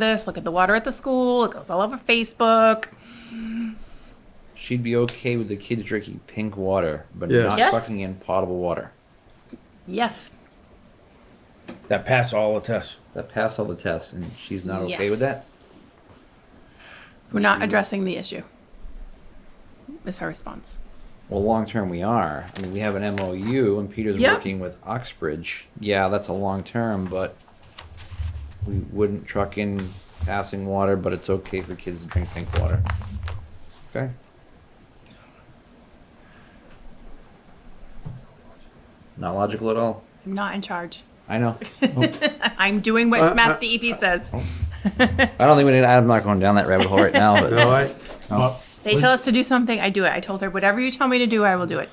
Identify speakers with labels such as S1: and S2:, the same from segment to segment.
S1: this, look at the water at the school, it goes all over Facebook.
S2: She'd be okay with the kids drinking pink water, but
S3: Yes.
S2: not
S1: Yes.
S2: sucking in potable water.
S1: Yes.
S4: that pass all the tests.
S2: That passed all the tests, and she's not okay
S1: Yes.
S2: with that.
S1: We're not addressing the issue. Is her response.
S2: Well, long term, we are. I mean, we have an MOU, and Peter's
S1: Yeah.
S2: working with Oxbridge. Yeah, that's a long term, but we wouldn't truck in passing water, but it's okay for kids to drink pink water. Okay. Not logical at all.
S1: I'm not in charge.
S2: I know.
S1: I'm doing
S3: Uh,
S1: what Mass DEP says.
S3: oh.
S2: I don't think we need. I'm not going down that rabbit hole right now. But
S3: No, I,
S2: Oh.
S1: They tell us to do something, I do it. I told her, whatever you tell me to do, I will do it.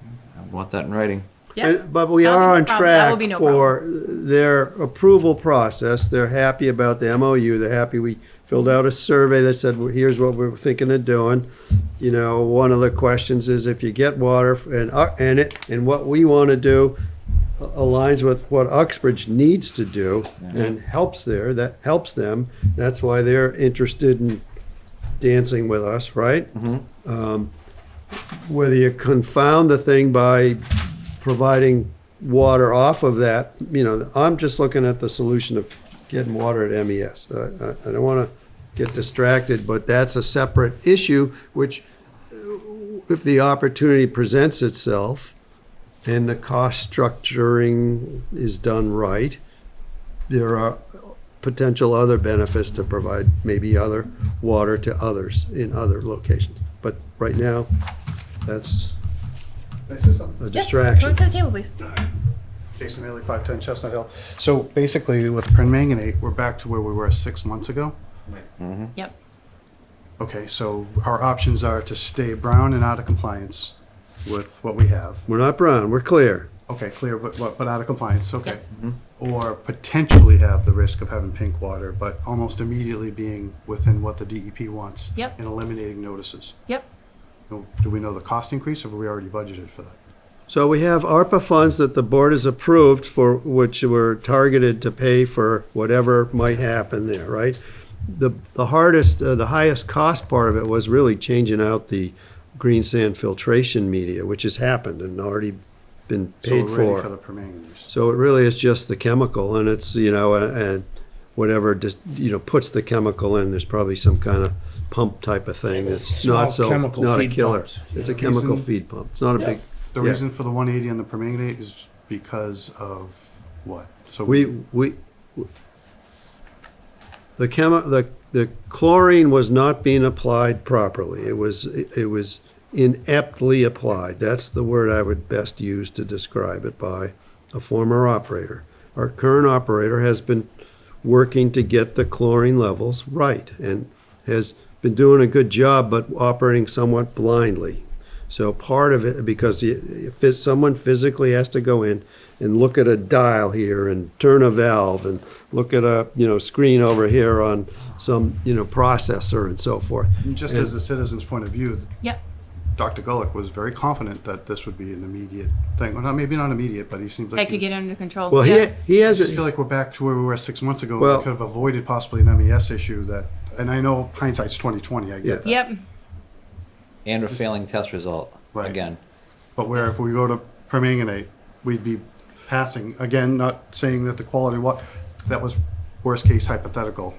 S3: Uh,
S2: I want that in writing.
S1: Yeah.
S3: and- Uh, but we
S1: That'll
S3: are
S1: be
S3: on
S1: no problem. That will
S3: track
S1: be no
S3: for their approval process. They're happy about the MOU. They're happy we filled out a survey that said, well, here's what we're thinking of doing. You know, one of the questions is if you get water f- and, uh, and it, and what we want to do a- aligns with what Uxbridge needs to do and helps there, that helps them. That's why they're interested in dancing with us, right? Um, Whether you confound the thing by providing water off of that, you know, I'm just looking at the solution of getting water at MES. I, I- I don't want to get distracted, but that's a separate issue, which uh, if the opportunity presents itself and the cost structuring is done right, there are potential other benefits to provide maybe other water to others in other locations. But right now, that's a distraction.
S1: Go to the table, please.
S5: Jason Haley, 510 Chestnut Hill. So basically, with permanganate, we're back to where we were six months ago.
S1: Yep.
S5: Okay, so our options are to stay brown and out of compliance with what we have.
S3: We're not brown, we're clear.
S5: Okay, clear, but, but but out of compliance, okay.
S1: Yes.
S5: Or potentially have the risk of having pink water, but almost immediately being within what the DEP wants.
S1: Yep.
S5: And eliminating notices.
S1: Yep.
S5: Now, Do we know the cost increase, or were we already budgeted for that?
S3: So we have ARPA funds that the board has approved for, which were targeted to pay for whatever might happen there, right? The, the hardest, uh, the highest cost part of it was really changing out the green sand filtration media, which has happened and already been paid
S5: So we're ready for
S3: for.
S5: the permanganate.
S3: So it really is just the chemical and it's, you know, a- and whatever, just, you know, puts the chemical in, there's probably some kind of pump type of thing that's not
S4: Small
S3: so,
S4: chemical
S3: not a
S4: feed
S3: killer.
S4: pumps.
S3: It's a
S5: The
S3: chemical
S5: reason-
S3: feed pump. It's not a big,
S5: The
S3: Yeah.
S5: reason for the 180 and the permanganate is because of what? So
S3: We, we, the chemi, the, the chlorine was not being applied properly. It was, it was ineptly applied. That's the word I would best use to describe it by a former operator. Our current operator has been working to get the chlorine levels right and has been doing a good job, but operating somewhat blindly. So part of it, because you- if it's- someone physically has to go in and look at a dial here and turn a valve and look at a, you know, screen over here on some, you know, processor and so forth.
S5: Just as a citizen's point of view,
S1: Yep.
S5: Dr. Gulick was very confident that this would be an immediate thing. Well, not maybe not immediate, but he seemed like
S1: I could
S5: he was-
S1: get it under control.
S3: Well, he,
S1: Yeah.
S3: he
S5: I just feel
S3: hasn't,
S5: like we're back to where we were six months ago.
S3: Well-
S5: we could have avoided possibly an MES issue that, and I know hindsight's twenty twenty. I get
S3: Yeah.
S5: that,
S1: Yep.
S2: And a failing test result
S5: Right.
S2: again.
S5: but where if we go to permanganate, we'd be passing again. Not saying that the quality what that was worst case hypothetical,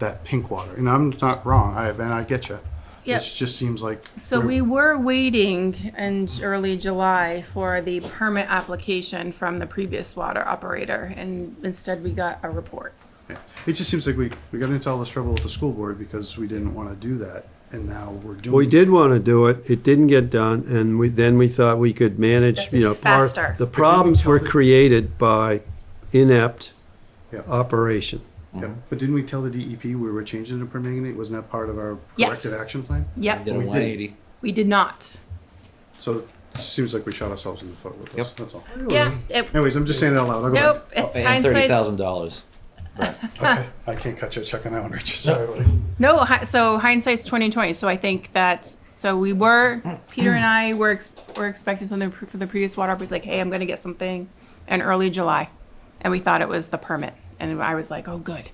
S5: that pink water. And I'm not wrong. I and I get you.
S1: Yep.
S5: It just seems like
S1: So we
S5: we're-
S1: were waiting in j- early July for the permit application from the previous water operator, and instead we got a report.
S5: Yeah. It just seems like we, we got into all this trouble with the school board because we didn't want to do that, and now we're doing.
S3: we did want to do it, it didn't get done, and we, then we thought we could manage,
S1: That's
S3: you know, par-
S1: faster.
S3: the problems were created by inept
S5: Yeah. uh,
S3: operation.
S5: Yeah.
S3: Mm-hmm.
S5: But didn't we tell the DEP we were changing to permanganate? Wasn't that part of our
S1: Yes.
S5: corrective action plan?
S2: We
S1: Yep,
S2: did a
S5: We did.
S2: 180.
S1: we did not.
S5: So it seems like we shot ourselves in the foot with this.
S2: Yep.
S5: That's all.
S1: Yeah, it,
S5: Anyways, I'm just saying it out loud. I'll go back.
S1: nope, it's
S2: Oh, and thirty
S1: hindsight's
S2: thousand dollars.
S5: Okay. I can't cut you a check on that one, Richard. Sorry. buddy.
S1: No, hi- so hindsight's twenty twenty. So I think that so we were Peter and I were ex- were expecting something pr- for the previous water. He's like, hey, I'm going to get something in early July, and we thought it was the permit, and I was like, oh, good.